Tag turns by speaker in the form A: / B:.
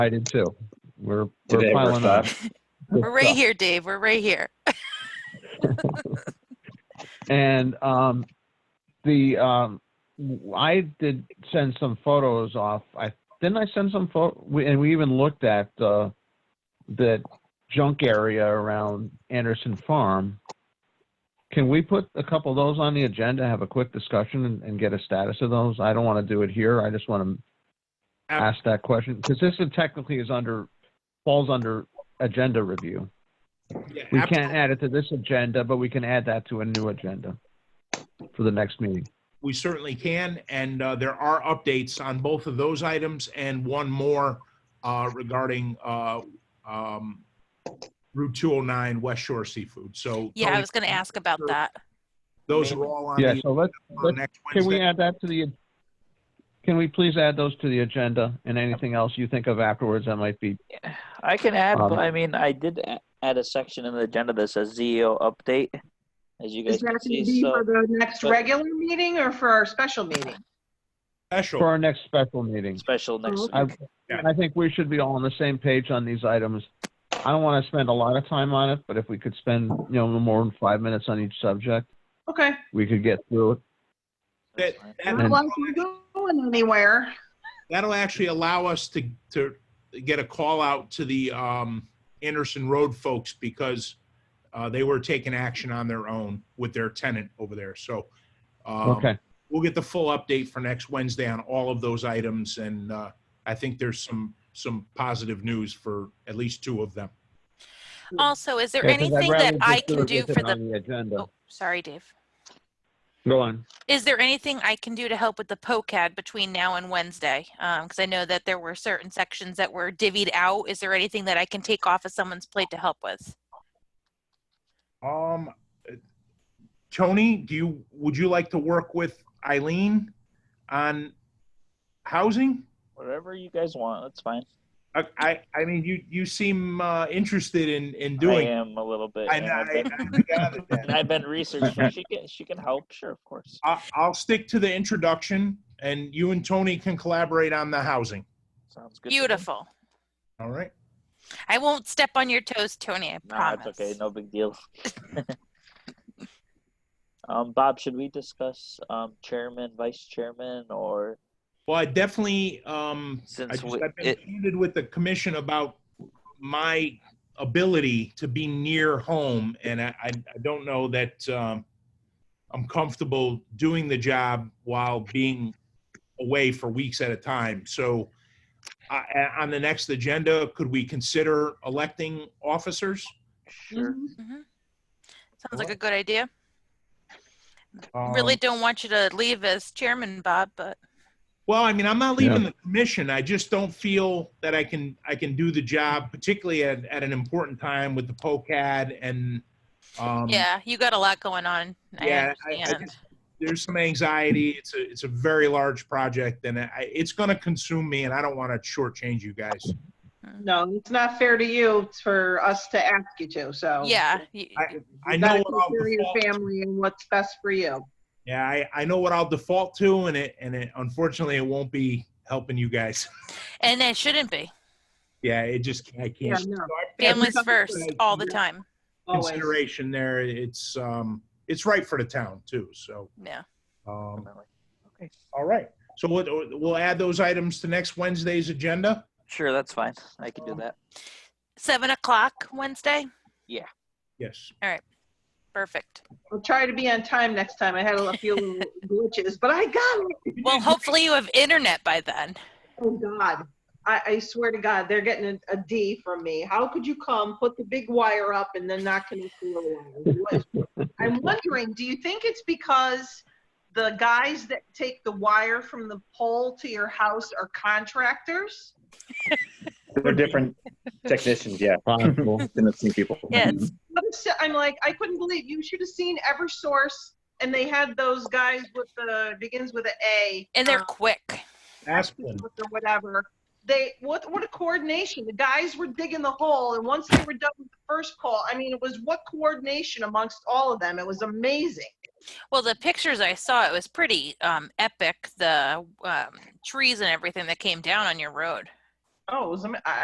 A: I did too. We're, we're
B: Today we're
A: piling on.
B: five.
A: Good
C: We're right
A: stuff.
C: here, Dave. We're right here.
A: And um, the um, w- I did send some photos off. I didn't I send some photo, we, and we even looked at uh, the junk area around Anderson Farm. Can we put a couple of those on the agenda, have a quick discussion, and, and get a status of those? I don't want to do it here. I just want to ask that question because this is technically is under falls under agenda review.
D: Yeah,
A: We
D: ab-
A: can't add it to this agenda, but we can add that to a new agenda for the next meeting.
D: We certainly can, and uh, there are updates on both of those items and one more uh, regarding uh, um, Route 209 West Shore Seafood. So
C: Yeah, I
D: Tony,
C: was going to ask about that.
D: those are all on
A: Yeah,
D: the
A: so let's,
D: for
A: let's,
D: next
A: can we
D: Wednesday.
A: add that to the, can we please add those to the agenda and anything else you think of afterwards that might be,
E: I can add,
A: Um,
E: but I mean, I did a- add a section in the agenda that says ZEO update, as you guys
F: Is that
E: can
F: going to
E: see.
F: be
E: So
F: for the next
E: but-
F: regular meeting or for our special
A: for
F: meeting?
D: Special.
A: our next special meeting?
E: special
F: Oh,
E: next
A: I,
E: week.
D: Yeah.
A: I think we should be all on the same page on these items. I don't want to spend a lot of time on it, but if we could spend, you know, no more than five minutes on each subject,
F: Okay,
A: we could get through it.
E: That's
D: That-
E: fine.
D: that-
F: not like we're going anywhere.
D: That'll actually allow us to, to get a call out to the um, Anderson Road folks because uh, they were taking action on their own with their tenant over there. So um,
A: Okay,
D: we'll get the full update for next Wednesday on all of those items, and uh, I think there's some, some positive news for at least two of them.
C: Also, is there
A: Yeah, 'cause I'd
C: anything
A: rather
C: that
A: just
C: I
A: do
C: can
A: it
C: do
A: with it
C: for the,
A: on agenda.
C: oh, sorry, Dave.
A: Go on.
C: Is there anything I can do to help with the POCAD between now and Wednesday? Because I know that there were certain sections that were divvied out. Is there anything that I can take off of someone's plate to help with?
D: Um, Tony, do you, would you like to work with Eileen on housing?
E: Whatever you guys want, that's fine.
D: I, I, I mean, you, you seem uh, interested in, in
E: I
D: doing. it.
E: am a little bit.
D: I,
E: and
D: I,
E: I've been-
D: I gathered that.
E: and I've been researching. She can, she can help, sure, of course.
D: I- I'll stick to the introduction, and you and Tony can collaborate on the housing,
E: Sounds good. to me.
C: Beautiful.
D: all right?
C: I won't step on your toes, Tony. I
E: Nah,
C: promise.
E: it's okay. No big deal. um, Bob, should we discuss um, chairman, vice chairman, or
D: Well, I definitely, um, I
E: since
D: just,
E: we,
D: I've been
E: it,
D: candid with the commission about my ability to be near home, and I, I I don't know that, um, I'm comfortable doing the job while being away for weeks at a time. So, I- a- on the next agenda, could we consider electing officers? Mm-hmm.
E: sure.
F: Mm-hmm.
C: Mhm. Sounds like a good idea. Really
D: Um,
C: don't want you to leave as chairman, Bob, but
D: Well, I mean, I'm not leaving the commission. I just don't feel that I can, I can do the job, particularly at, at an important time with the POCAD and, um,
C: yeah, you got a lot going on. I
D: yeah, I- I
C: understand.
D: just- there's some anxiety. It's a, it's a very large project and I, it's going to consume me and I don't want to shortchange you guys.
F: No, it's not fair to you It's for us to ask you to, so.
C: yeah, y-
D: I, I
F: You
D: know
F: gotta
D: what I'll
F: consider your
D: default,
F: family and what's best for you.
D: yeah, I, I know what I'll default to and it, and it, unfortunately it won't be helping you guys.
C: and it shouldn't be.
D: Yeah, it just, I
F: Yeah,
D: can't.
F: no,
C: Families
F: something
C: first,
D: that
C: all the
D: you're-
C: time.
F: always.
D: Consideration there. It's, um, it's right for the town too. So,
C: Yeah.
D: um,
E: Okay.
D: All right. So we'll, we'll add those items to next Wednesday's agenda.
E: Sure, that's fine. I can do that.
C: Seven o'clock Wednesday.
D: Yes.
C: Perfect.
F: I'll try to be on time next time. I had a few little glitches, but I got it.
C: Well, hopefully you have internet by then.
F: Oh, God. I, I swear to God, they're getting a, a D from me. How could you come, put the big wire up and then not connect the little wire? What- I'm wondering, do you think it's because the guys that take the wire from the pole to your house are contractors?
B: They're different technicians, yeah.
A: Possible.
B: Than the same people.
C: Yes.
F: What is- I'm like, I couldn't believe, you should have seen Eversource and they had those guys with the, begins with an A.
C: And they're quick.
D: Asplin.
F: or whatever. They what what a coordination. The guys were digging the hole, and once they were done with the first call, I mean, it was what coordination amongst all of them. It was amazing.
C: Well, the pictures I saw, it was pretty um, epic. The um, trees and everything that came down on your road.
F: Oh, it was, ama- I,